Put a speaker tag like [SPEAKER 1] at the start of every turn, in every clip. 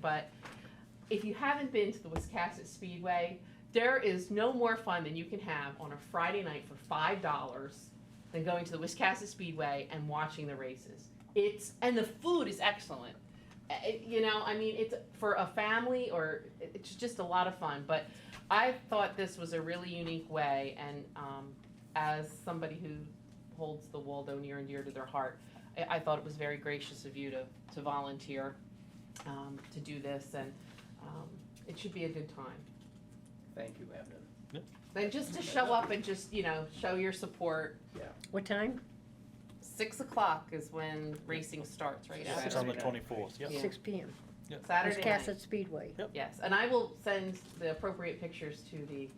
[SPEAKER 1] but if you haven't been to the Wiscasset Speedway, there is no more fun than you can have on a Friday night for five dollars than going to the Wiscasset Speedway and watching the races. It's and the food is excellent. Uh, it- you know, I mean, it's for a family or it- it's just a lot of fun. But I thought this was a really unique way, and um, as somebody who holds the Waldo near and dear to their heart, I, I thought it was very gracious of you to to volunteer um, to do this, and um, it should be a good time.
[SPEAKER 2] Thank you, Abden.
[SPEAKER 1] And just to show up and just, you know, show your support.
[SPEAKER 3] What time?
[SPEAKER 1] Six o'clock is when racing starts, right?
[SPEAKER 2] Yeah.
[SPEAKER 3] Six
[SPEAKER 1] after
[SPEAKER 2] Saturday
[SPEAKER 4] on the
[SPEAKER 2] night.
[SPEAKER 4] twenty-fourth, yep.
[SPEAKER 1] Yeah.
[SPEAKER 3] Six P M.
[SPEAKER 1] Saturday night.
[SPEAKER 3] Wiscasset Speedway.
[SPEAKER 1] Yes, and I will send the appropriate pictures to the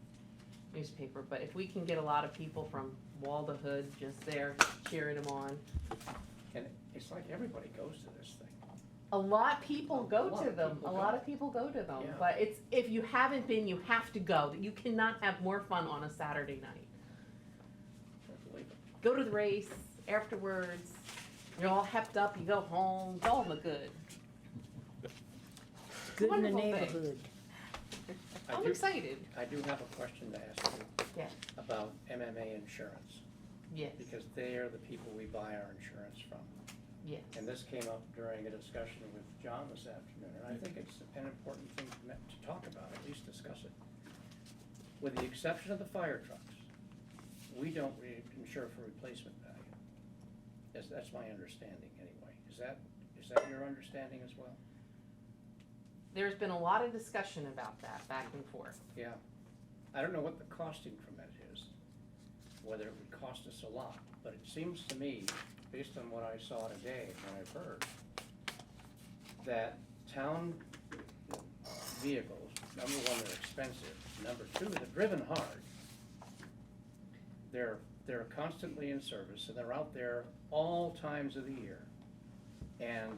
[SPEAKER 1] newspaper, but if we can get a lot of people from Wall to Hood just there cheering them on.
[SPEAKER 2] And it's like everybody goes to this thing.
[SPEAKER 1] A lot people
[SPEAKER 2] A
[SPEAKER 1] go
[SPEAKER 2] lot
[SPEAKER 1] to
[SPEAKER 2] of
[SPEAKER 1] them,
[SPEAKER 2] people
[SPEAKER 1] a
[SPEAKER 2] go.
[SPEAKER 1] lot of people go to them,
[SPEAKER 2] Yeah.
[SPEAKER 1] but it's, if you haven't been, you have to go. You cannot have more fun on a Saturday night.
[SPEAKER 2] I believe it.
[SPEAKER 1] go to the race afterwards. You're all hepped up. You go home. It's all in the good.
[SPEAKER 3] Good in the
[SPEAKER 1] Wonderful thing.
[SPEAKER 3] neighborhood.
[SPEAKER 2] I
[SPEAKER 1] I'm
[SPEAKER 2] do-
[SPEAKER 1] excited.
[SPEAKER 2] I do have a question to ask you.
[SPEAKER 1] Yeah.
[SPEAKER 2] About MMA insurance,
[SPEAKER 1] Yes.
[SPEAKER 2] because they are the people we buy our insurance from.
[SPEAKER 1] Yes.
[SPEAKER 2] And this came up during a discussion with John this afternoon, and I think it's an important thing to me- to talk about, at least discuss it. With the exception of the fire trucks, we don't re- insure for replacement value. That's, that's my understanding anyway. Is that, is that your understanding as well?
[SPEAKER 1] There's been a lot of discussion about that back and forth.
[SPEAKER 2] Yeah. I don't know what the cost increment is, whether it would cost us a lot, but it seems to me, based on what I saw today and what I've heard, that town vehicles, number one, they're expensive, number two, they're driven hard. They're, they're constantly in service and they're out there all times of the year. And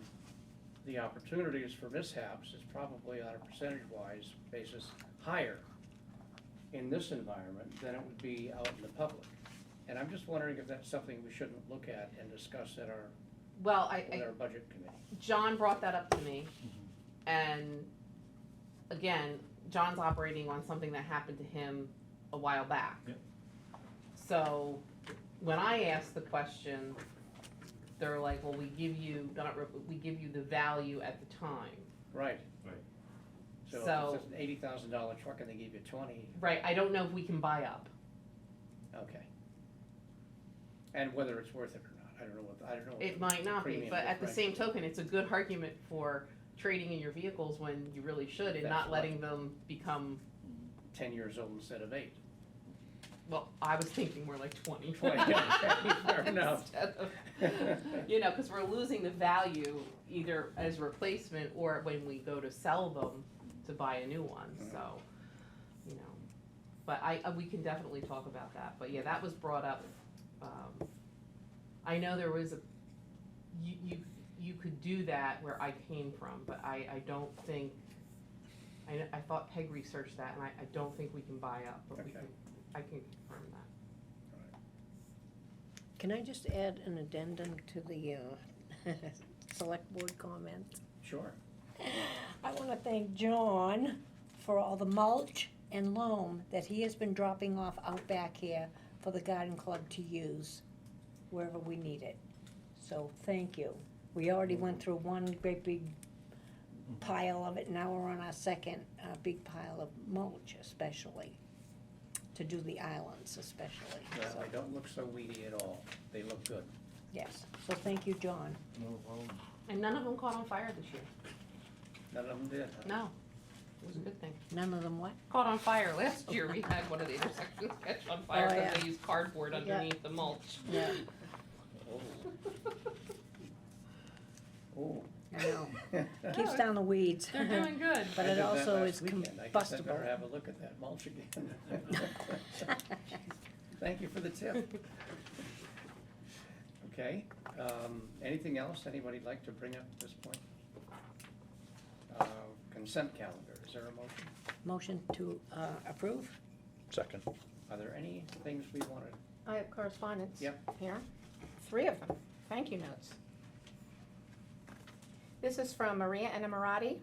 [SPEAKER 2] the opportunities for mishaps is probably on a percentage-wise basis higher in this environment than it would be out in the public. And I'm just wondering if that's something we shouldn't look at and discuss at our,
[SPEAKER 1] Well, I,
[SPEAKER 2] with
[SPEAKER 1] I
[SPEAKER 2] our budget committee.
[SPEAKER 1] John brought that up to me,
[SPEAKER 2] Mm-hmm.
[SPEAKER 1] and again, John's operating on something that happened to him a while back.
[SPEAKER 4] Yep.
[SPEAKER 1] So when I asked the question, they're like, "Well, we give you not re- we give you the value at the time."
[SPEAKER 2] Right.
[SPEAKER 4] Right.
[SPEAKER 2] So
[SPEAKER 1] So-
[SPEAKER 2] if it's an eighty thousand dollar truck and they give you twenty,
[SPEAKER 1] Right, I don't know if we can buy up.
[SPEAKER 2] okay. And whether it's worth it or not, I don't know what, I don't know. what
[SPEAKER 1] It
[SPEAKER 2] the
[SPEAKER 1] might not be,
[SPEAKER 2] premium
[SPEAKER 1] but at the same
[SPEAKER 2] differential is.
[SPEAKER 1] token, it's a good argument for trading in your vehicles when you really should and
[SPEAKER 2] That's
[SPEAKER 1] not
[SPEAKER 2] right.
[SPEAKER 1] letting them become,
[SPEAKER 2] Ten years old instead of eight.
[SPEAKER 1] well, I was thinking more like twenty.
[SPEAKER 2] 20, okay, fair enough.
[SPEAKER 1] Instead of- You know, cause we're losing the value either as replacement or when we go to sell them to buy a new one,
[SPEAKER 2] Mhm.
[SPEAKER 1] so, you know. But I, uh, we can definitely talk about that, but yeah, that was brought up, um, I know there was a, you, you, you could do that where I came from, but I, I don't think, I, I thought Peg researched that, and I, I don't think we can buy up, but we
[SPEAKER 2] Okay.
[SPEAKER 1] can, I can confirm that.
[SPEAKER 3] Can I just add an addendum to the, uh, select board comments?
[SPEAKER 2] Sure.
[SPEAKER 3] I wanna thank John for all the mulch and loam that he has been dropping off out back here for the garden club to use wherever we need it. So, thank you. We already went through one great big pile of it, now we're on our second, uh, big pile of mulch especially, to do the islands especially,
[SPEAKER 2] Well,
[SPEAKER 3] so,
[SPEAKER 2] They don't look so weedy at all. They look good.
[SPEAKER 3] yes. So, thank you, John.
[SPEAKER 1] And none of them caught on fire this year,
[SPEAKER 2] None of them did. huh?
[SPEAKER 1] no, it was a good thing.
[SPEAKER 3] None of them what?
[SPEAKER 1] Caught on fire, last year we had one of the intersections catch on fire,
[SPEAKER 3] Oh,
[SPEAKER 1] cause
[SPEAKER 3] yeah.
[SPEAKER 1] they used cardboard
[SPEAKER 3] Yeah.
[SPEAKER 1] underneath the mulch.
[SPEAKER 3] Yeah.
[SPEAKER 2] Oh. Oh.
[SPEAKER 3] I know, keeps
[SPEAKER 1] No,
[SPEAKER 3] down the weeds.
[SPEAKER 1] They're doing good.
[SPEAKER 3] But
[SPEAKER 2] I
[SPEAKER 3] it
[SPEAKER 2] did that
[SPEAKER 3] also
[SPEAKER 2] last
[SPEAKER 3] is
[SPEAKER 2] weekend. I guess I better
[SPEAKER 3] combustible.
[SPEAKER 2] have a look at that mulch again. Thank you for the tip. Okay, um, anything else anybody'd like to bring up at this point? Uh, Consent calendar, is there a motion?
[SPEAKER 3] Motion to uh, approve?
[SPEAKER 4] Second.
[SPEAKER 2] Are there any things we wanted?
[SPEAKER 5] I have correspondence.
[SPEAKER 2] Yep.
[SPEAKER 5] Here, three of them, thank you notes. This is from Maria Enamorati